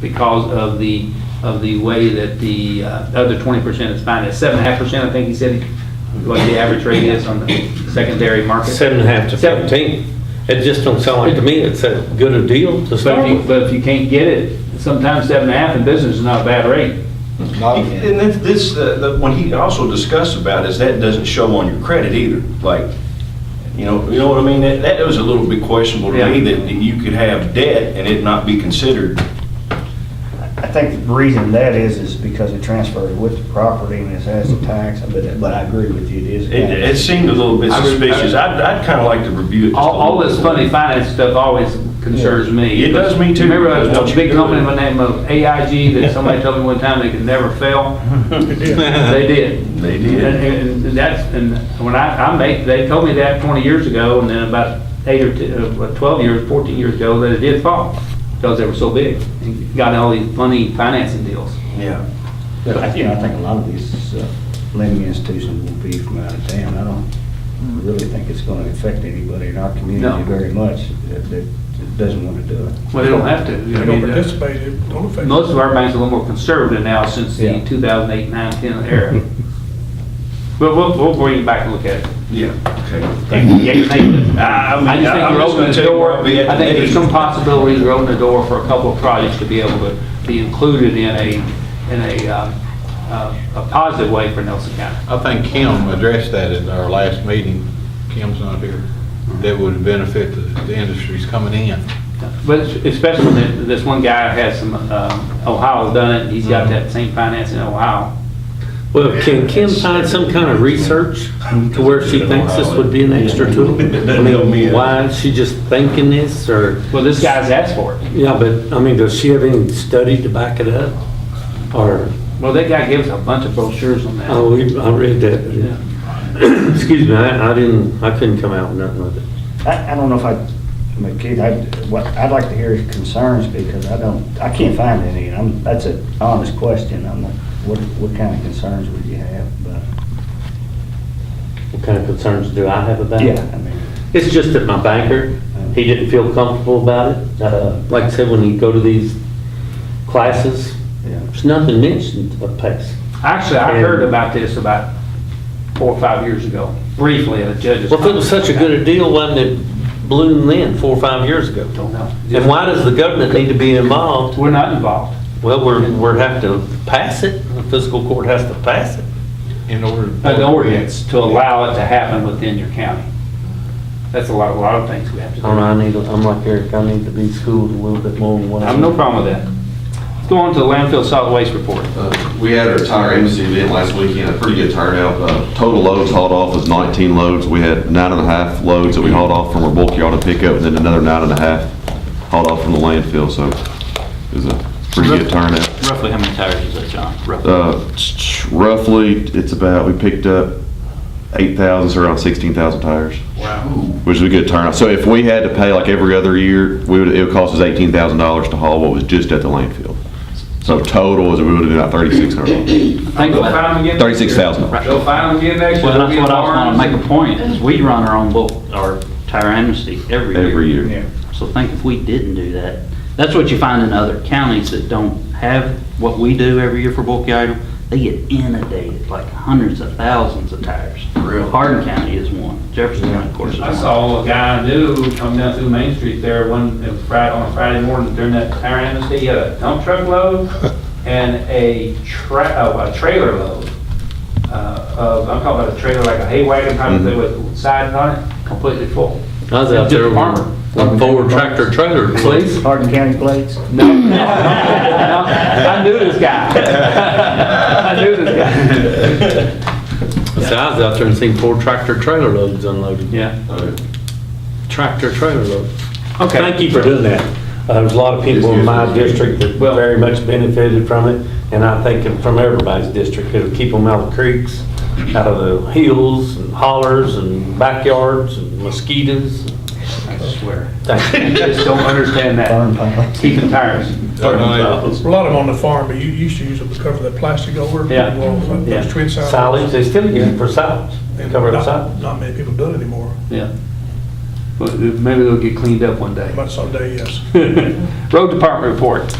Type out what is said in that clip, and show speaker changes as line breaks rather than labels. because of the, of the way that the uh, other twenty percent is financed. Seven and a half percent, I think he said, what the average rate is on the secondary market.
Seven and a half to
Seven.
fifteen. It just don't sound like to me it's that good a deal to
But
start
if you,
with.
but if you can't get it, sometimes seven and a half in business is not a bad rate.
Not-
And then this, the- the- what he also discussed about is that doesn't show on your credit either, like, you know, you know what I mean? That, that was a little bit questionable to me,
Yeah.
that you could have debt and it not be considered.
I think the reason that is, is because it transferred with the property and it has a tax, but, but I agree with you, it is. a
It, it
tax.
seemed a little bit
I would-
suspicious. I'd, I'd kind of like to review it. just a
All, all
little
this
bit.
funny finance stuff always concerns me.
It does me too,
Remember uh,
because
a
once you
big
do
company
it-
by the name of AIG that somebody told me one time they could never fail? They did.
They
And-
did.
And and that's, and when I, I made, they told me that 20 years ago, and then about eight or t- uh, what, 12 years, 14 years ago, that it did fall, because they were so big, and got all these funny financing deals.
Yeah.
But I, you know, I think a lot of these uh, lending institutions will be from out of town. I don't really think it's gonna affect anybody in our
No.
community very much that, that doesn't wanna do it.
Well, they don't have to. you know,
They
I mean,
don't
uh,
participate, it don't affect.
Most of our banks are a little more conservative now since the
Yeah.
2008, 9, 10 era. But we'll, we'll bring you back and look at it.
Yeah, okay.
Yeah, you think- I I just think
I'm
you're
just
opening
gonna
the
tell you
door,
where I'll be at
I think there's
today.
some possibility you're opening the door for a couple of projects to be able to be included in a, in a, um, uh, a positive way for Nelson County.
I think Kim addressed that at our last meeting, Kim's not here, that would benefit the the industries coming in.
But especially that this one guy has some, um, Ohio's done it, he's got that same finance in Ohio.
Well, can Kim find some kind of research to where she thinks this would be an extra tool? I mean, why is she just thinking this or,
Well, this guy's asked for it.
yeah, but I mean, does she have any study to back it up? Or,
Well, that guy gives a bunch of brochures on that.
oh, we- I read that.
Yeah.
Excuse me, I, I didn't, I couldn't come out with nothing with it.
I, I don't know if I, McKee, I, what, I'd like to hear his concerns because I don't, I can't find any. And I'm, that's an honest question. I'm, not- what, what kind of concerns would you have? But,
What kind of concerns do I have about it?
yeah, I mean.
It's just that my banker, he didn't feel comfortable about it. Uh, Like I said, when you go to these classes,
Yeah.
there's nothing mentioned of PACE.
Actually, I
And-
heard about this about four or five years ago, briefly at a judge's.
Well, if it was such a good a deal, why didn't it bloom then, four or five years ago?
Don't know.
And why does the government need to be involved?
We're not involved.
Well, we're, we're have to pass it, the fiscal court has to pass it.
In order.
an ordinance to allow it to happen within your county. That's a lot, a lot of things we have to
I don't know,
do.
I need, to- I'm like Eric, I need to be schooled a little bit more than what
I
I
have no problem with that. Let's go on to the landfill solid waste report.
Uh, We had our tire embassy event last weekend, a pretty good turnout. Uh, Total loads hauled off was 19 loads. We had nine and a half loads that we hauled off from our bulk yard to pick up, and then another nine and a half hauled off from the landfill, so it was a pretty good turnout.
Roughly how many tires is that, John? Roughly.
Uh, Roughly, it's about, we picked up 8,000, so around 16,000 tires. Which is a good turnout. So if we had to pay like every other year, we would, it would cost us $18,000 to haul what was just at the landfill. So total is, we would have been about 3,600.
Think we'll find them again? next year.
36,000.
They'll find them again next year.
Well, that's
It'll
what
be
I was
barns.
gonna make a point, is we run our own book, our tire amnesty every year.
Every year. Yeah.
So think if we didn't do that, that's what you find in other counties that don't have what we do every year for bulky item. They get inundated, like hundreds of thousands of tires.
Really?
Hardin County is one, Jefferson County, of course, is one.
I saw a guy I knew come down through Main Street there one, it was Friday, on a Friday morning during that tire amnesty, he had a dump truck load and a tra, uh, a trailer load. Uh, of, I'm talking about a trailer like a hay wagon, probably with sides on it, completely full.
I was out there with a Ford tractor trailer, please.
Hardin County plates?
No, no, no, I knew this guy. I knew this guy.
I said, I was out there and seen four tractor trailer loads unloaded.
Yeah,
Tractor trailer loads.
okay.
Thank you for doing that. Uh, There's a lot of people in my district that very much benefited from it, and I think from everybody's district. It'll keep them out of creeks, out of the hills and hollers and backyards and mosquitoes.
I swear. I
Thank you.
just don't understand that.
Burn pile.
Keeping tires.
Thirty-nine.
A lot of them on the farm, but you used to use them to cover the plastic over.
Yeah.
well,
Yeah.
Those twin sides.
Silage, they still use it for silage,
And
cover up
not-
silage.
Not many people do it anymore,
Yeah. But maybe they'll get cleaned up one day.
but someday, yes.
Road Department report.